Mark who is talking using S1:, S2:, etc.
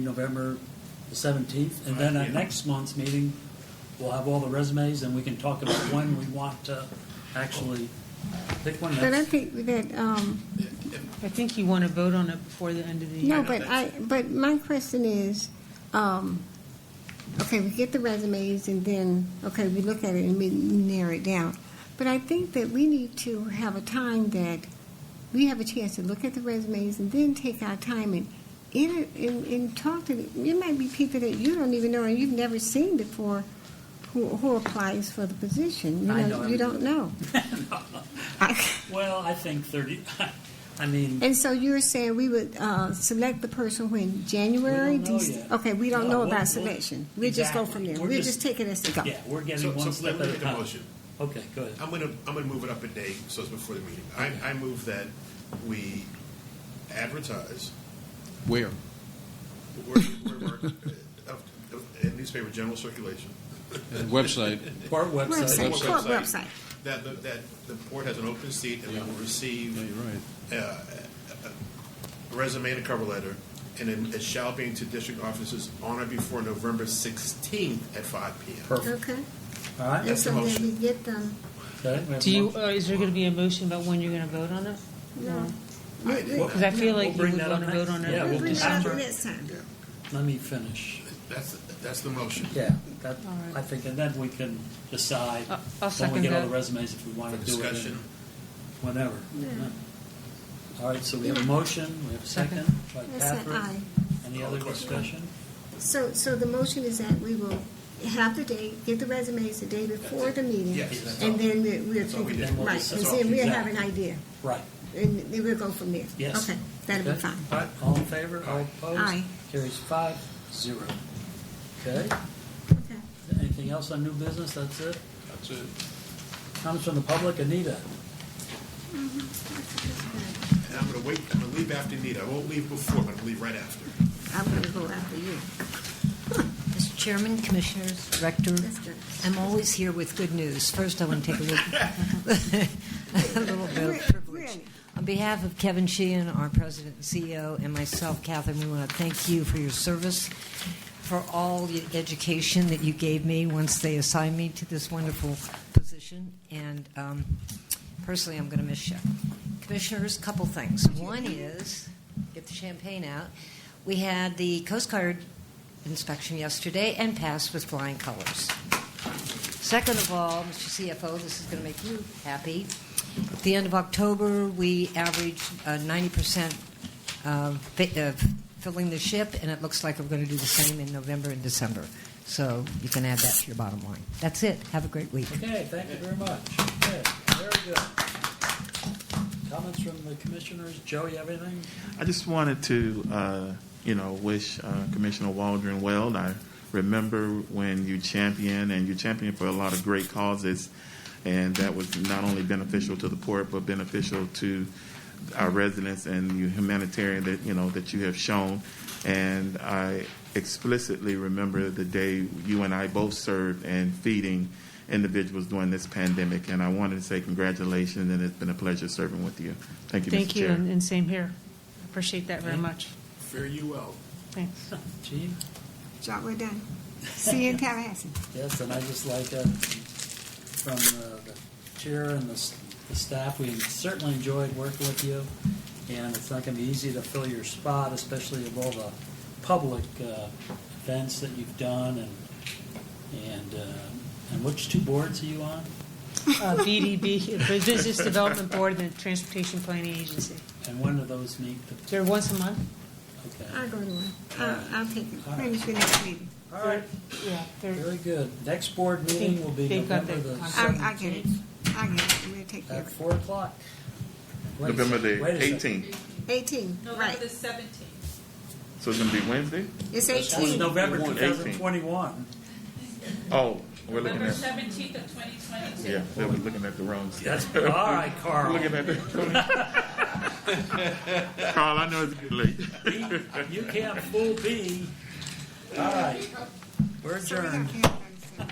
S1: November the seventeenth, and then
S2: Right,
S1: at
S2: yeah.
S1: next month's meeting, we'll have all the resumes, and we can talk about when we want to actually pick one.
S3: But I
S1: That's-
S3: think that, um,
S4: I think you want to vote on it before the end of the year.
S3: no, but I, but my question is, um, okay, we get the resumes and then, okay, we look at it and we narrow it down. But I think that we need to have a time that we have a chance to look at the resumes and then take our time and, and, and, and talk to, the- it might be people that you don't even know and you've never seen before who, who applies for the position. You
S1: I know
S3: You don't know.
S1: Well, I think thirty, I mean,
S3: And so you're saying we would uh, select the person when January?
S1: We don't know
S3: Dec-
S1: yet.
S3: Okay, we don't
S1: No,
S3: know
S1: we'll- we'll-
S3: about selection. We'll just go from there.
S1: Exactly. We're
S3: We'll
S1: just-
S3: just take it as it goes.
S1: yeah, we're
S2: So,
S1: getting one
S2: so
S1: step
S2: let me
S1: at a
S2: make a
S1: time.
S2: motion.
S1: Okay, go ahead.
S2: I'm gonna, I'm gonna move it up a day, so it's before the meeting. I, I move that we advertise
S5: Where?
S2: where, where, we're- of, of, in newspaper general circulation.
S5: Website.
S1: Our website,
S3: Website.
S2: Or
S3: Corp website.
S2: That, the- that the board has an open seat and we will
S5: Yeah,
S2: receive
S5: you're right.
S2: a resume and a cover letter. And then it shall be into district offices on or before November sixteenth at five P M.
S1: perfect,
S3: Okay.
S1: all right?
S3: And
S2: That's the
S3: so then
S2: motion.
S3: we get them.
S1: okay, we have
S4: Do
S1: a
S4: you,
S1: motion.
S4: uh, is there going to be a motion about when you're going to vote on it?
S3: No.
S2: I-
S3: We- we-
S4: Because uh, I feel like
S1: We'll
S4: you
S1: bring
S4: would
S1: that
S4: want
S1: up
S4: to vote
S1: next.
S4: on it.
S1: Yeah,
S3: We'll bring it up
S1: December.
S3: next time.
S1: Let me finish.
S2: That's, that's the motion.
S1: Yeah, that,
S4: All right.
S1: I think, and then we can decide
S4: I'll-
S1: when
S4: I'll
S1: we
S4: second
S1: get all
S4: that.
S1: the resumes if we want to
S2: For
S1: do it. in-
S2: discussion.
S1: Whenever.
S3: Yeah.
S1: All right, so we have a motion, we have a second by
S3: I said aye.
S1: Catherine. Any other discussion?
S3: So, so the motion is that we will have the date, get the resumes the day before the meeting.
S2: Yes, that's all.
S3: And then we- we'll
S2: That's all we
S3: take it.
S1: did.
S3: Right,
S1: That's
S3: and
S1: all.
S3: then we'll have
S1: Exactly.
S3: an idea.
S1: Right,
S3: And then we'll go from there.
S1: yes.
S3: Okay, that'll be
S1: Okay.
S3: fine.
S1: All right, all in favor, all
S3: Aye.
S1: opposed? Carries five, zero. Okay,
S3: Okay.
S1: anything else on new business? That's it?
S5: That's it.
S1: Comments from the public, Anita?
S2: And I'm gonna wait, I'm gonna leave after Nita. I won't leave before, but I'll leave right after.
S3: I'm going to go after you.
S6: Mr. Chairman, Commissioners, Director,
S3: That's good.
S6: I'm always here with good news. First, I want to take a little, a little bit of privilege.
S3: Really?
S6: On behalf of Kevin Sheehan, our President and CEO, and myself, Catherine, we want to thank you for your service, for all the education that you gave me once they assigned me to this wonderful position, and um, personally, I'm going to miss you. Commissioners, couple things. One is, get the champagne out, we had the Coast Guard inspection yesterday and passed with flying colors. Second of all, Mr. CFO, this is going to make you happy. At the end of October, we averaged uh, 90% uh, fi- uh, filling the ship, and it looks like we're going to do the same in November and December. So you can add that to your bottom line. That's it. Have a great week.
S1: Okay, thank you very much. Okay, very good. Comments from the commissioners? Joe, you have anything?
S7: I just wanted to, uh, you know, wish uh, Commissioner Waldron well. And I remember when you championed, and you championed for a lot of great causes, and that was not only beneficial to the port, but beneficial to our residents and you humanitarian that you know that you have shown. And I explicitly remember the day you and I both served and feeding individuals during this pandemic. And I wanted to say congratulations, and it's been a pleasure serving with you. Thank you, Mr.
S4: Thank you,
S7: Chair.
S4: and and same here. Appreciate that very much.
S2: Fare you well.
S4: Thanks.
S1: Gene?
S3: So we're done. See you in Tallahassee.
S1: Yes, and I just like uh, from uh, the chair and the, s- the staff, we certainly enjoyed working with you, and it's not going to be easy to fill your spot, especially of all the public uh, events that you've done, and and uh, and which two boards are you on?
S4: Uh, BDB, the Business Development Board and the Transportation Planning Agency.
S1: And when do those meet?
S4: They're once a month?
S1: Okay.
S3: I'll go to one. I'll, I'll take it.
S1: All right.
S3: Finish the next meeting.
S1: All right.
S4: Yeah. they're-
S1: Very good. Next board meeting will be
S4: They've got
S1: November
S4: their
S1: the
S3: I,
S4: contract.
S3: I get it. I get it. We'll take care
S1: at
S3: of it.
S1: four o'clock. Wait a
S7: November
S1: second.
S7: the
S1: Wait a second.
S7: 18th.
S3: Eighteen,
S8: November
S3: right.
S8: the seventeenth.
S7: So it's going to be Wednesday?
S3: It's
S1: That was
S3: eighteen.
S1: November
S7: 18th.
S1: 2021.
S7: Oh, we're looking
S8: November
S7: at,
S8: seventeenth of twenty twenty-two.
S7: yeah, they were looking at the wrong stuff.
S1: That's, all right, Carl.
S7: We're looking at the. Carl, I know it's getting late.
S1: You can't fool me. All right. We're
S3: So we got
S1: adjourned.
S3: Karen.